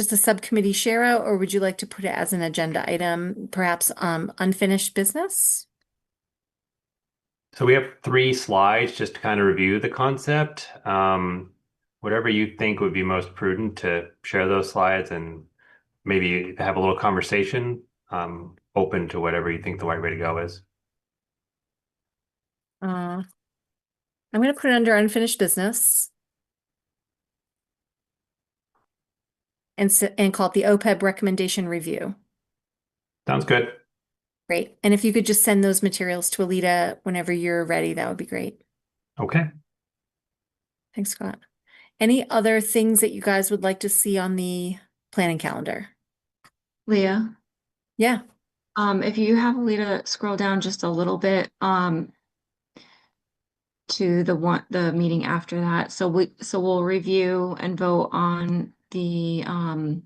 as the subcommittee share out, or would you like to put it as an agenda item, perhaps um unfinished business? So we have three slides just to kind of review the concept. Um, whatever you think would be most prudent to share those slides and maybe have a little conversation, um, open to whatever you think the right way to go is. Uh, I'm gonna put it under unfinished business. And s- and call it the OPEB recommendation review. Sounds good. Great. And if you could just send those materials to Alita whenever you're ready, that would be great. Okay. Thanks, Scott. Any other things that you guys would like to see on the planning calendar? Leah, Yeah. um, if you have Leah scroll down just a little bit, um, to the one, the meeting after that. So we, so we'll review and vote on the, um,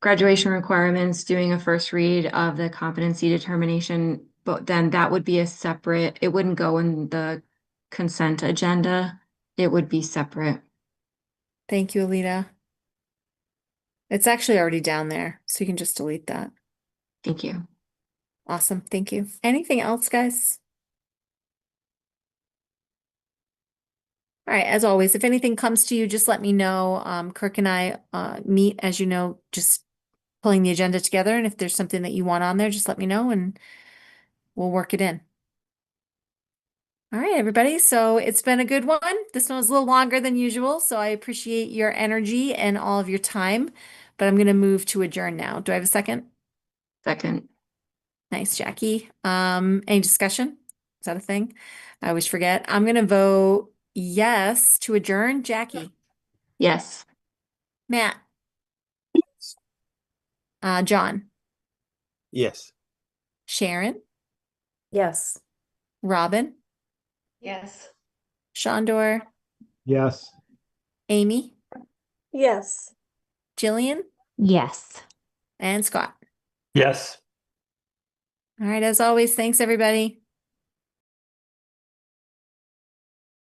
graduation requirements, doing a first read of the competency determination, but then that would be a separate, it wouldn't go in the consent agenda. It would be separate. Thank you, Alita. It's actually already down there, so you can just delete that. Thank you. Awesome, thank you. Anything else, guys? All right, as always, if anything comes to you, just let me know. Um, Kirk and I, uh, meet, as you know, just pulling the agenda together, and if there's something that you want on there, just let me know and we'll work it in. All right, everybody, so it's been a good one. This one was a little longer than usual, so I appreciate your energy and all of your time, but I'm gonna move to adjourn now. Do I have a second? Second, Nice, Jackie. Um, any discussion? Is that a thing? I always forget. I'm gonna vote yes to adjourn. Jackie, yes. Matt, uh, John, Yes. Sharon, Yes. Robin, Yes. Shondor, Yes. Amy, Yes. Jillian, Yes. and Scott. Yes. All right, as always, thanks, everybody.